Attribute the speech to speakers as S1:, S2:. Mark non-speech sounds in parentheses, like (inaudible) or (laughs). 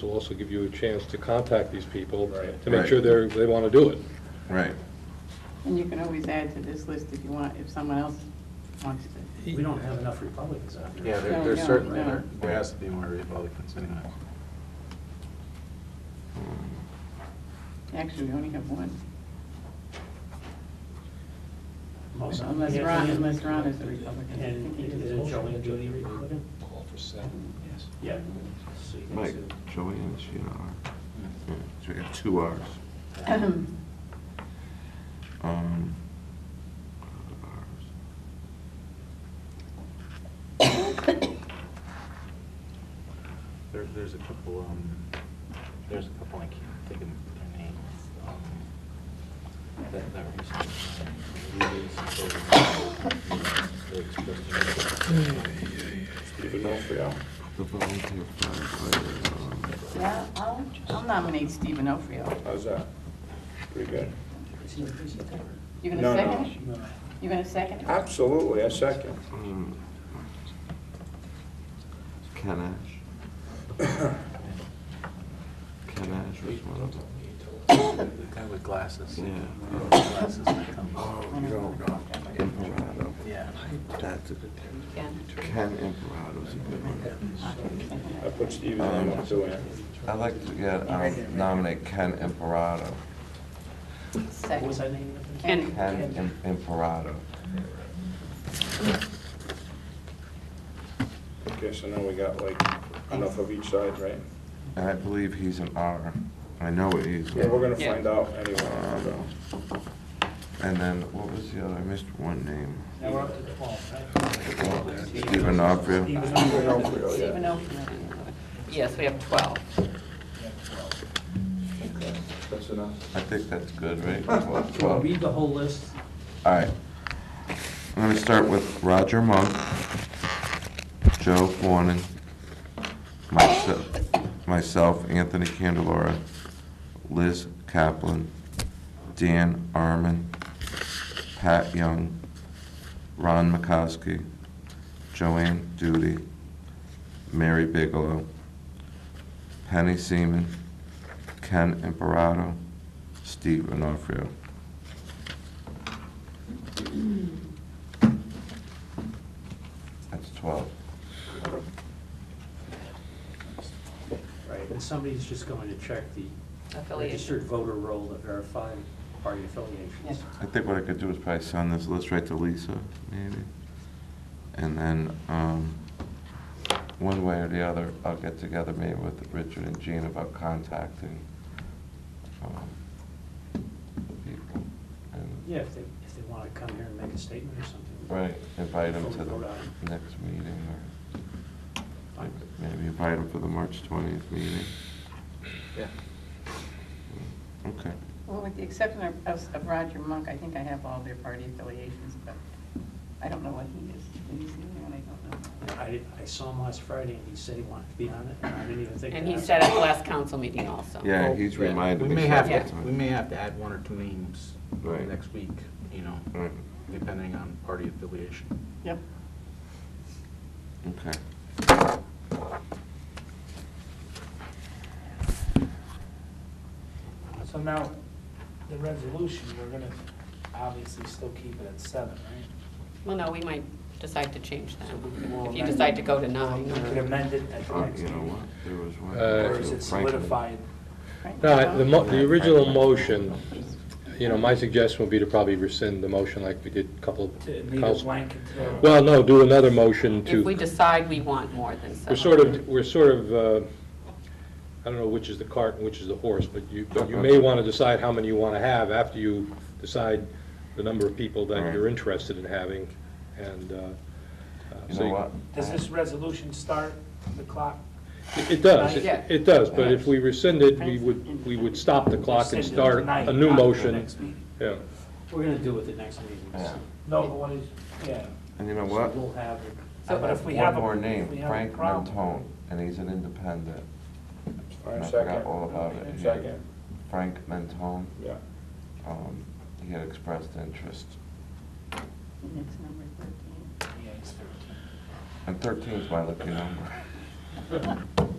S1: This will also give you a chance to contact these people
S2: Right.
S1: to make sure
S3: Right.
S1: they're, they want to do it.
S3: Right.
S4: And you can always add to this list if you want, if someone else wants to.
S2: We don't have enough Republicans out here.
S5: Yeah,
S4: No,
S5: there- there's
S4: no,
S5: certainly,
S4: no.
S5: there there has to be more Republicans anyway.
S4: Actually, we only have one,
S2: Most-
S4: unless
S2: Yeah,
S4: Ron,
S2: and-
S4: unless Ron is a Republican. I think
S2: And
S4: he is.
S2: is Jolene Dooley a Republican?
S6: Call for seven, yes.
S2: Yeah. So you can
S3: Mike,
S2: see-
S3: Joanne, is she an R? Yeah, So we got two Rs. (clears throat) Um, Rs.
S5: There, there's a couple, um, there's a couple, I can't think of their names, um, that, that recently.
S3: The volunteer firefighter. um,
S4: Yeah, I'll, I'll nominate Stephen Ophryo.
S7: How's that? Pretty good.
S4: You gonna
S7: No, no.
S4: second it? You gonna second it?
S7: Absolutely, I second.
S3: um, Ken Ash. Ken Ash was one of them.
S5: The guy with glasses.
S3: Yeah.
S5: Glasses that comes,
S7: Oh, You don't know.
S3: Imperato.
S5: yeah.
S3: That's a,
S4: Ken.
S3: Ken Imperado's a good one.
S7: I put Steve's name up to it.
S3: I'd like to get, um, nominate Ken Imperato.
S2: What was that
S4: Second.
S2: name?
S4: Ken.
S3: Ken Im- Imperato.
S7: Okay, so now we got like enough of each side, right?
S3: And I believe he's an R. I know it is.
S7: Yeah, we're gonna
S4: Yeah.
S7: find out anyway,
S3: Uh,
S7: so.
S3: And then, what was the other, I missed one name.
S2: Now we're up to twelve, right?
S3: Stephen Opry.
S2: Even though
S7: You
S2: we're-
S7: know, for real, yeah.
S4: Stephen Ophryo. Yes, we have 12.
S7: That's enough.
S3: I think that's good, right? Twelve, twelve.
S2: Read the whole list.
S3: All right. I'm gonna start with Roger Monk, Joe Fornin, myself, myself, Anthony Candelora, Liz Kaplan, Dan Arman, Pat Young, Ron McCoskey, Joanne Duty, Mary Bigelow, Penny Seaman, Ken Imperato, Steve Onofrio. That's 12.
S2: Right, and somebody's just going to check the
S8: affiliation.
S2: registered voter roll to verify party affiliations.
S4: Yes.
S3: I think what I could do is probably send this list right to Lisa, maybe. And then, um, one way or the other, I'll get together maybe with Richard and Jean about contacting, um, people. and-
S2: Yeah, if they, if they want to come here and make a statement or something.
S3: Right, invite them to
S2: Before we vote on
S3: the next meeting, or
S2: Fine.
S3: maybe invite them for the March twentieth meeting.
S5: Yeah.
S3: Okay.
S4: Well, with the exception of- of of Roger Monk, I think I have all their party affiliations, but I don't know what he is. Did he say anyone? I don't know.
S2: I, I saw him last Friday and he said he wanted to be on it, and I didn't even think.
S8: And
S2: to
S8: he
S2: ask.
S8: said at the last council meeting also.
S3: Yeah, he's
S5: Yeah,
S3: reminded me.
S5: We may have,
S3: several
S5: to-
S3: times.
S5: we may have to add one or two names
S3: Right.
S5: next week, you know,
S3: Right,
S5: depending on party affiliation.
S4: Yep.
S3: okay.
S9: So now, the resolution, we're gonna obviously still keep it at seven, right?
S8: Well, no, we might decide to change that.
S9: So we- we'll
S8: If you
S9: amend-
S8: decide to go to nine,
S9: We could
S8: or-
S9: amend it at the
S3: Uh,
S9: next
S3: You know
S9: meeting,
S3: what, there was one.
S1: Uh,
S9: or is it
S3: Franklin.
S9: solidified?
S4: Frank,
S1: No, the,
S4: Ron?
S1: mo- the original motion, you know, my suggestion would be to probably rescind the motion like we did a couple
S9: To
S1: of
S9: leave it
S1: council.
S9: blank until.
S1: Well, no, do another motion
S8: if we
S1: to,
S8: decide we want more than seven.
S1: we're sort of, we're sort of, uh, I don't know which is the cart and which is the horse, but you, but you may want to decide how many you want to have after you decide the number of people that
S3: Right.
S1: you're interested in having, and, uh, uh,
S3: You
S1: so
S3: know what?
S9: Does this resolution start the clock?
S1: It it does, it-
S8: Yeah.
S1: it does, but if we rescind it, we would, we would stop the clock and
S9: Rescind it
S1: start
S9: tonight,
S1: a new
S9: not the
S1: motion.
S9: next meeting.
S1: Yeah,
S2: We're going to do it the next meeting. so-
S3: Yeah.
S9: No, but what is, yeah.
S3: And you know
S9: So
S3: what?
S9: We'll have. it.
S8: So-
S9: But if we
S3: One
S9: have a-
S3: more
S9: if we
S3: name,
S9: have a
S3: Frank
S9: problem-
S3: Mentone, and he's an independent.
S7: All
S3: And
S7: right,
S3: I
S7: second.
S3: forgot all about it.
S7: And Second,
S3: Frank Mentone,
S7: yeah.
S3: um, he had expressed interest.
S4: Next number 13.
S9: Yeah, it's thirteen.
S3: (laughs) And thirteen's my lucky number.